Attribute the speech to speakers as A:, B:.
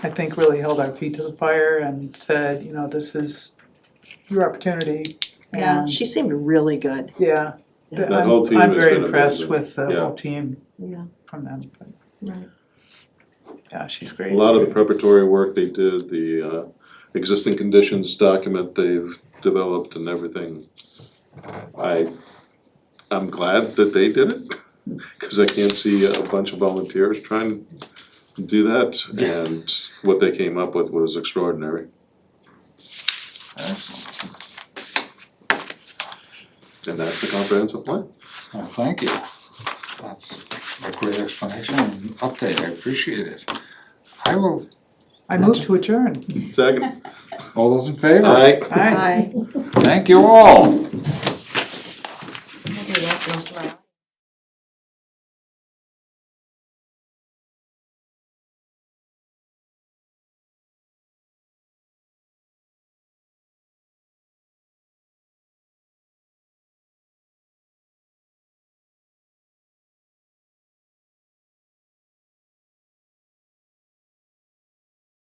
A: I think really held our feet to the fire and said, you know, this is your opportunity.
B: Yeah,
A: and-
B: she seemed really good.
A: Yeah.
B: Yeah.
A: I'm-
C: That whole team
A: I'm
C: has
A: very
C: been
A: impressed
C: amazing.
A: with the
C: Yeah.
A: whole team
B: Yeah.
A: from them. but-
B: Right.
A: Yeah, she's
C: A
A: great.
C: lot of the preparatory work they did, the uh, existing conditions document they've developed and everything. I, I'm glad that they did it, because I can't see a bunch of volunteers trying to do that. And what they came up with was extraordinary.
D: Excellent.
C: And that's the comprehensive plan.
D: Well, thank you. That's a great explanation and update. I appreciate it. I will,
A: I move to adjourn.
C: Second.
D: all those in favor?
C: Aye.
A: Aye.
B: Hi.
D: Thank you all.